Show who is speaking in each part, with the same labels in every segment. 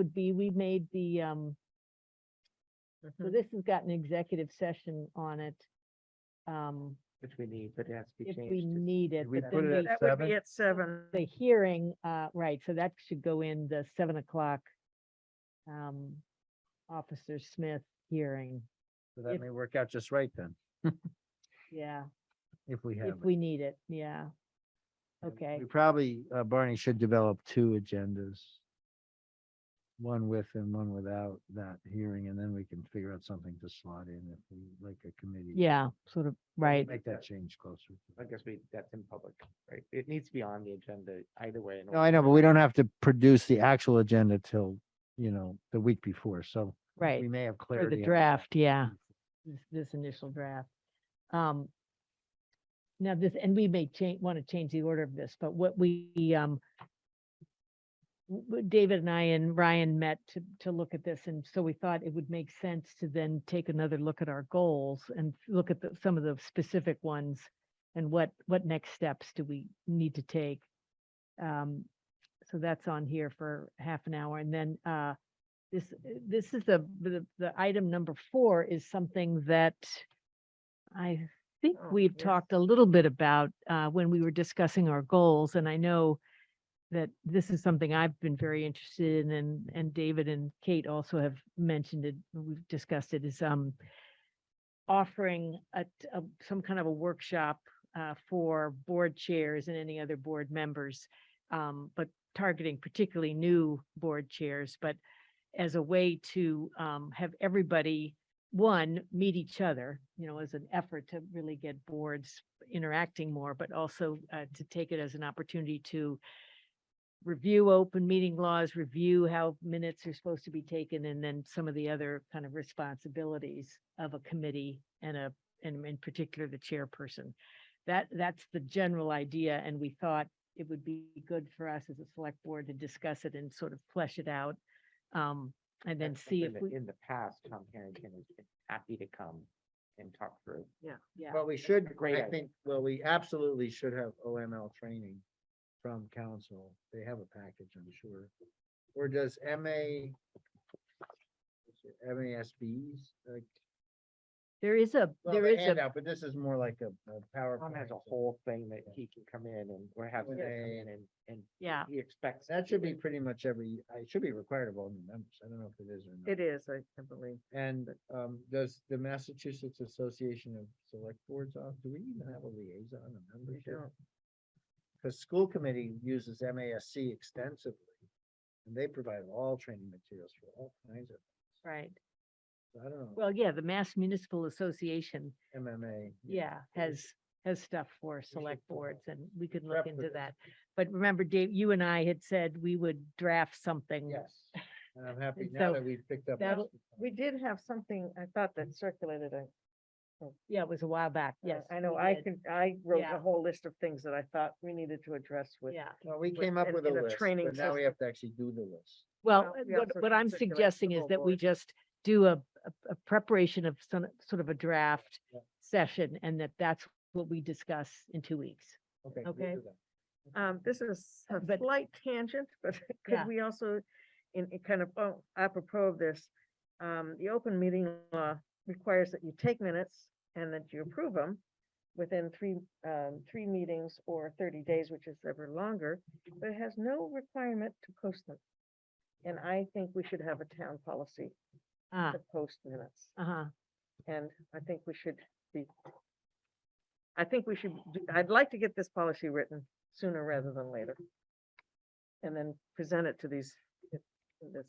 Speaker 1: would be, we made the, um,
Speaker 2: Mm-hmm.
Speaker 1: so
Speaker 3: Hmm.
Speaker 1: this has got an executive session on it. Um,
Speaker 3: Which we need, but it has to be
Speaker 1: if
Speaker 3: changed.
Speaker 1: we
Speaker 3: to-
Speaker 1: need it,
Speaker 3: Did we
Speaker 1: but
Speaker 3: put
Speaker 1: then
Speaker 3: it
Speaker 1: we,
Speaker 3: at
Speaker 2: That would
Speaker 3: seven?
Speaker 2: be at seven.
Speaker 1: the hearing, uh, right, so that should go in the seven o'clock. Um, Officer Smith hearing,
Speaker 3: So
Speaker 1: if-
Speaker 3: that may work out just right then,
Speaker 1: yeah,
Speaker 3: if we have.
Speaker 1: if
Speaker 3: it.
Speaker 1: we need it, yeah.
Speaker 3: And
Speaker 1: Okay.
Speaker 3: We probably, uh, Barney should develop two agendas. One with and one without that hearing, and then we can figure out something to slot in if we like a committee.
Speaker 1: Yeah, sort of, right.
Speaker 3: Make that change closer.
Speaker 4: I guess we, that's in public, right? It needs to be on the agenda either way. in
Speaker 3: No, I
Speaker 4: order.
Speaker 3: know, but we don't have to produce the actual agenda till, you know, the week before, so.
Speaker 1: Right,
Speaker 3: We may have
Speaker 1: for
Speaker 3: clarity.
Speaker 1: the
Speaker 3: on-
Speaker 1: draft, yeah. This, this initial draft. Um. Now this, and we may change, want to change the order of this, but what we, um. w- w- David and I and Ryan met to, to look at this, and so we thought it would make sense to then take another look at our goals and look at the, some of the specific ones. And what, what next steps do we need to take? Um, so that's on here for half an hour, and then, uh, this, this is the, the, the item number four is something that I think
Speaker 2: Oh,
Speaker 1: we've
Speaker 2: yes.
Speaker 1: talked a little bit about, uh, when we were discussing our goals, and I know that this is something I've been very interested in, and, and David and Kate also have mentioned it, we've discussed it, is, um, offering a, t- a- some kind of a workshop, uh, for board chairs and any other board members, um, but targeting particularly new board chairs, but as a way to um, have everybody, one, meet each other, you know, as an effort to really get boards interacting more, but also uh, to take it as an opportunity to review open meeting laws, review how minutes are supposed to be taken, and then some of the other kind of responsibilities of a committee and a, and in particular, the chairperson. That, that's the general idea, and we thought it would be good for us as a select board to discuss it and sort of flesh it out. Um, and then
Speaker 4: That's
Speaker 1: see if
Speaker 4: something that
Speaker 1: we,
Speaker 4: In the past, Tom Harrington has been happy to come and talk through.
Speaker 1: yeah.
Speaker 3: Well, we should,
Speaker 4: Great
Speaker 3: I
Speaker 4: idea.
Speaker 3: think, well, we absolutely should have OML training from council. They have a package, I'm sure. Or does MA? what's it, MASBs, like,
Speaker 1: There is a,
Speaker 3: well,
Speaker 1: there
Speaker 3: the
Speaker 1: is a,
Speaker 3: handout, but this is more like a, a
Speaker 4: Tom
Speaker 3: PowerPoint.
Speaker 4: has a
Speaker 3: so
Speaker 4: whole thing that he can come in and, or have him come in and, and
Speaker 1: yeah,
Speaker 4: he expects.
Speaker 3: That should be pretty much every, I should be required of all new members. I don't know if it is or not.
Speaker 2: It is, I I believe.
Speaker 3: And, um, does the Massachusetts Association of Select Boards, uh, do we even have a liaison, a membership?
Speaker 2: don't.
Speaker 3: Cause school committee uses MASC extensively, and they provide all training materials for all kinds of,
Speaker 1: right.
Speaker 3: so I don't know,
Speaker 1: Well, yeah, the Mass Municipal Association,
Speaker 3: MMA.
Speaker 1: yeah,
Speaker 3: we
Speaker 1: has, has stuff for
Speaker 3: should
Speaker 1: select
Speaker 3: pull
Speaker 1: boards
Speaker 3: that.
Speaker 1: and we could
Speaker 3: Prep
Speaker 1: look
Speaker 3: for
Speaker 1: into
Speaker 3: that.
Speaker 1: that. But remember, Dave, you and I had said we would draft something.
Speaker 3: Yes, and I'm happy
Speaker 1: And
Speaker 3: now
Speaker 1: so
Speaker 3: that we've picked up.
Speaker 1: that'll-
Speaker 2: We did have something, I thought that circulated. I- uh,
Speaker 1: Yeah, it was a while back, yes.
Speaker 2: I know,
Speaker 1: we
Speaker 2: I
Speaker 1: did.
Speaker 2: can, I wrote
Speaker 1: Yeah.
Speaker 2: a whole list of things that I thought we needed to address with.
Speaker 1: Yeah,
Speaker 3: Well, we
Speaker 2: with-
Speaker 3: came up
Speaker 2: and-
Speaker 3: with a
Speaker 2: and a
Speaker 3: list,
Speaker 2: training
Speaker 3: but now we
Speaker 2: system.
Speaker 3: have to actually do the list.
Speaker 1: well,
Speaker 2: we
Speaker 1: what,
Speaker 2: also
Speaker 1: what
Speaker 2: can
Speaker 1: I'm
Speaker 2: circulate to the
Speaker 1: suggesting is
Speaker 2: whole
Speaker 1: that we
Speaker 2: board.
Speaker 1: just do a, a- a preparation of some, sort of a draft
Speaker 3: Yeah.
Speaker 1: session and that that's what we discuss in two weeks.
Speaker 3: Okay. we'll
Speaker 1: Okay.
Speaker 3: do that.
Speaker 2: Um, this is a
Speaker 1: But-
Speaker 2: slight tangent, but
Speaker 1: Yeah.
Speaker 2: could we also, in, in kind of, oh, apropos of this, um, the open meeting law requires that you take minutes and that you approve them within three, um, three meetings or thirty days, which is ever longer, but it has no requirement to post them. And I think we should have a town policy
Speaker 1: Ah,
Speaker 2: to post minutes.
Speaker 1: uh-huh,
Speaker 2: And I think we should be, I think we should, do- I'd like to get this policy written sooner rather than later. And then present it to these, in this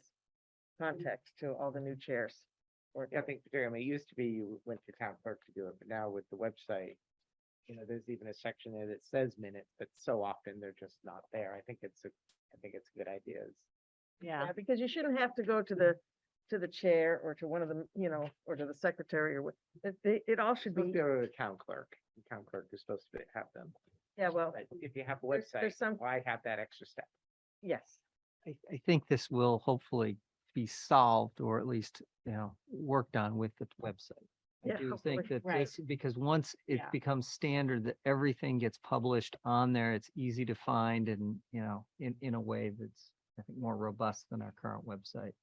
Speaker 2: context to all the new chairs. Or,
Speaker 4: I think, Jeremy, it used to be you went to town clerk to do it, but now with the website, you know, there's even a section there that says minutes, but so often they're just not there. I think it's a, I think it's a good idea. It's-
Speaker 1: yeah,
Speaker 2: Yeah, because you shouldn't have to go to the, to the chair or to one of them, you know, or to the secretary or what, it, they- it all should
Speaker 4: Supposed to be
Speaker 2: be,
Speaker 4: over the town clerk. The town clerk is supposed to be- have them.
Speaker 2: yeah, well,
Speaker 4: But If you have a
Speaker 2: there's- there's
Speaker 4: website,
Speaker 2: some-
Speaker 4: why have that extra step?
Speaker 2: yes.
Speaker 5: I, I think this will hopefully be solved or at least, you know, worked on with the website.
Speaker 2: Yeah,
Speaker 5: I do
Speaker 2: hopefully,
Speaker 5: think that
Speaker 1: right.
Speaker 5: this, because once it
Speaker 1: Yeah.
Speaker 5: becomes standard that everything gets published on there, it's easy to find and, you know, in, in a way that's,
Speaker 3: I think, more robust than our current website.